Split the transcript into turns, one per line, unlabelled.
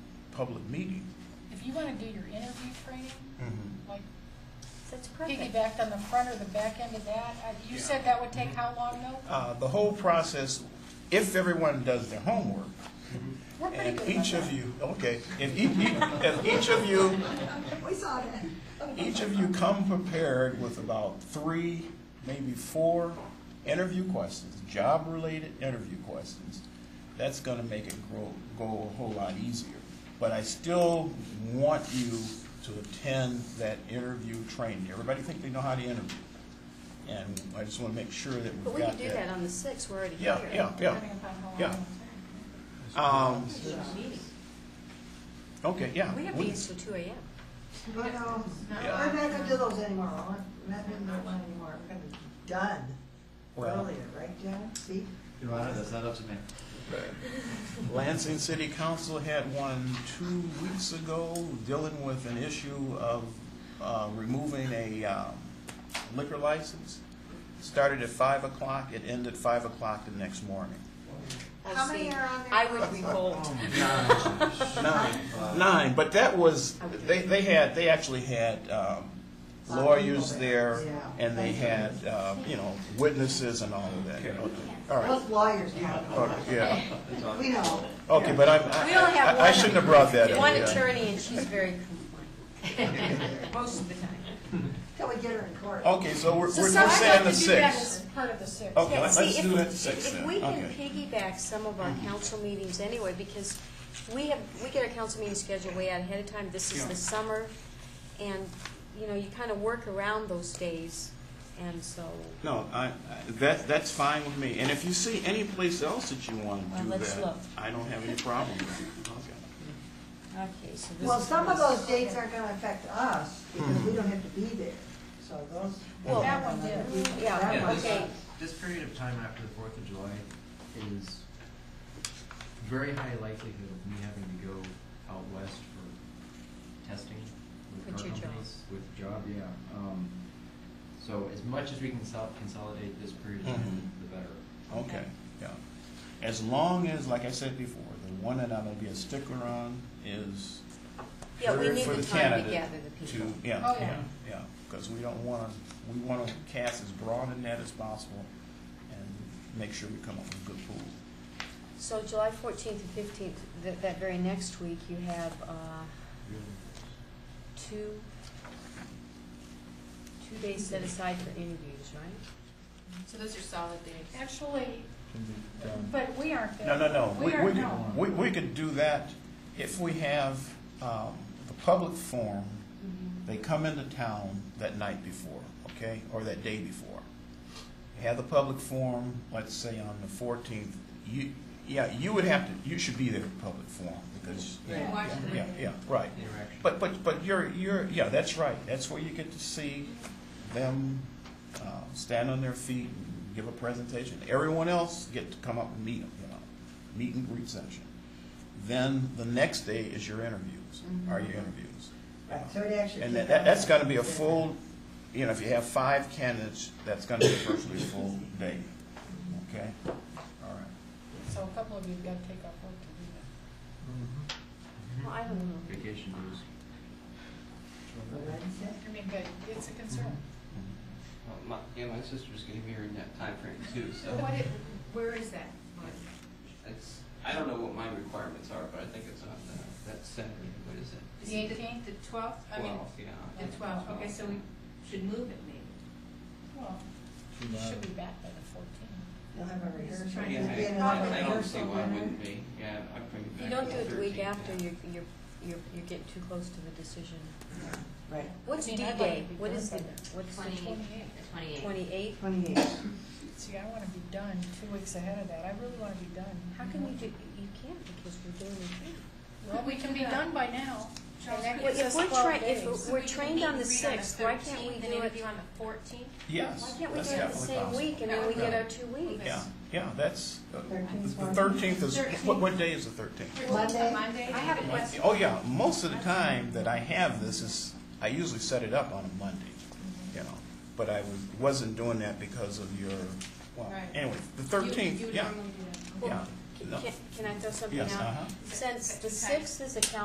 public meeting.
If you wanna do your interview training,
Mm-hmm.
like
That's perfect.
piggybacked on the front or the back end of that, uh, you said that would take how long though?
Uh, The whole process, if everyone does their homework,
We're pretty
and
good about
each of
that.
you, okay, if each, if each of you,
We saw that.
each of you come prepared with about three, maybe four interview questions, job-related interview questions, that's gonna make it grow, go a whole lot easier. But I still want you to attend that interview training. Everybody think they know how to interview. And I just wanna make sure that we've
But
got
we
that.
could do that on the sixth, we're already here.
Yeah, yeah, yeah.
Depending upon how long.
Yeah.
it
Um,
Meeting.
okay, yeah.
We have
we-
meetings till two AM.
But, um, we're
Yeah.
not gonna do those anymore, we're not gonna do one anymore, we're gonna be done
Well-
earlier, right, John? See?
Your Honor, that's not up to me.
Lansing City Council had one two weeks ago dealing with an issue of uh, removing a um, liquor license. Started at five o'clock, it ended five o'clock the next morning.
I've
How many
seen-
are on there?
I would revolt.
Nine, nine, but that was, they, they had, they actually had um, lawyers there, and they had, uh, you know, witnesses and all of that. Okay, All right,
Those lawyers have,
okay, yeah,
we know.
okay, but I'm,
We only have
I- I- I
one-
shouldn't have brought that up.
One
yeah.
attorney and she's very compliant, most of the time.
Till we get her in court.
Okay, so we're,
So
we're
some-
we're saying the
I'd like to do that
six.
as part of the six.
Okay,
Yeah,
let's
see, if-
do that six
If
then.
we can
Okay. Mm-hmm.
piggyback some of our council meetings anyway, because we have, we get our council meetings scheduled way out ahead of time, this is the summer, and, you know, you kind of work around those days, and so,
No, I, I- that, that's fine with me, and if you see any place else that you want to
Well,
do
let's
that,
look.
I don't have any problem with it. Okay.
okay, so this.
Well, some of those dates aren't gonna affect us, because we don't have to be there, so those.
Well,
That one did.
Yeah,
That
Yeah,
one.
okay.
This period of time after the Fourth of July is very high likelihood of me having to go out west for testing with
With
car
your job.
companies. With job, yeah. Um, So as much as we can sol- consolidate this period of time, the better.
Okay, yeah. As long as, like I said before, the one that I'm gonna be a sticker on is
Yeah, we
for-
need
for
the
the
time to
candidate
gather the
to,
people.
yeah,
Oh, yeah.
yeah, yeah. Because we don't want to, we want to cast as broad a net as possible and make sure we come up with a good pool.
So July fourteenth and fifteenth, that, that very next week, you have, uh, two, two days set aside for interviews, right?
So those are solid dates.
Actually, but we aren't there.
No, no, no.
We
we
aren't,
could-
no.
We, we could do that if we have, um, the public forum, they come into town that night before, okay, or that day before. You Have the public forum, let's say on the fourteenth, you, yeah, you would have to, you should be there for public forum, because,
Yeah.
Watch the-
yeah, yeah, right.
Interaction.
But, but, but you're, you're, yeah, that's right, that's where you get to see them, uh, stand on their feet and give a presentation. Everyone else get to come up and meet them, you know, meet and greet session. Then the next day is your interviews, are your interviews.
Right, so it actually.
And that, that- that's gonna be a full, you know, if you have five candidates, that's gonna be virtually a full day, okay? All right.
So a couple of you've got to take off work to do that.
Mm-hmm.
Well, I don't know.
Vacation dues.
Wednesday?
I mean, but it's a concern.
Well, my, yeah, my sister's gonna be here in that time frame too, so
What it, where is that?
it's, I don't know what my requirements are, but I think it's on the, that's Saturday, what is it?
The 18th?
The twelfth, I mean,
Twelve, yeah. I
the
think
twelfth, okay, so we should move it maybe.
Well, you should be back by the fourteenth.
You'll have a rehearsal.
Just trying
Yeah,
You'll be in
I,
another
I don't see
rehearsal
why it
dinner.
wouldn't be, yeah, I'd bring it
If
back.
you don't
to
do it the week
13th,
after,
yeah.
you're, you're, you're, you're getting too close to the decision.
Right,
What's
I mean, I'd like
D-Day?
to be
What
done
is
by
the, what's
The
the
twenty-eighth.
twenty-eighth?
twenty-eighth.
See, I want to be done two weeks ahead of that. I really want to be done.
How can we do, you can't because we're doing the
Well, we can be done by now.
Charles,
And that
could-
gives
Well,
us
if we're
12
trying- if
days.
we're-
So
we're
we can
trained
meet
on
and
the
greet on the
6th. Why can't we
13th,
do
And
it-
interview on the fourteenth?
Yes.
Why can't we do
that's
it the
definitely
same
possible.
week and then we get our two weeks?
Yeah, yeah, that's, uh,
Thirteenth
the
one.
thirteenth is, what,
Thirteenth.
what day is the thirteenth?
Monday?
Monday?
I have a question.
Oh, yeah, most of the time that I have this is, I usually set it up on a Monday,
Mm-hmm.
you know, but I was, wasn't doing that because of your, well,
Right.
anyway, the
You-
thirteenth,
you
yeah,
normally do that.
yeah.
Can,
no.
can I throw something out?
Yes, uh-huh.
Since the
Okay.
sixth is a calendar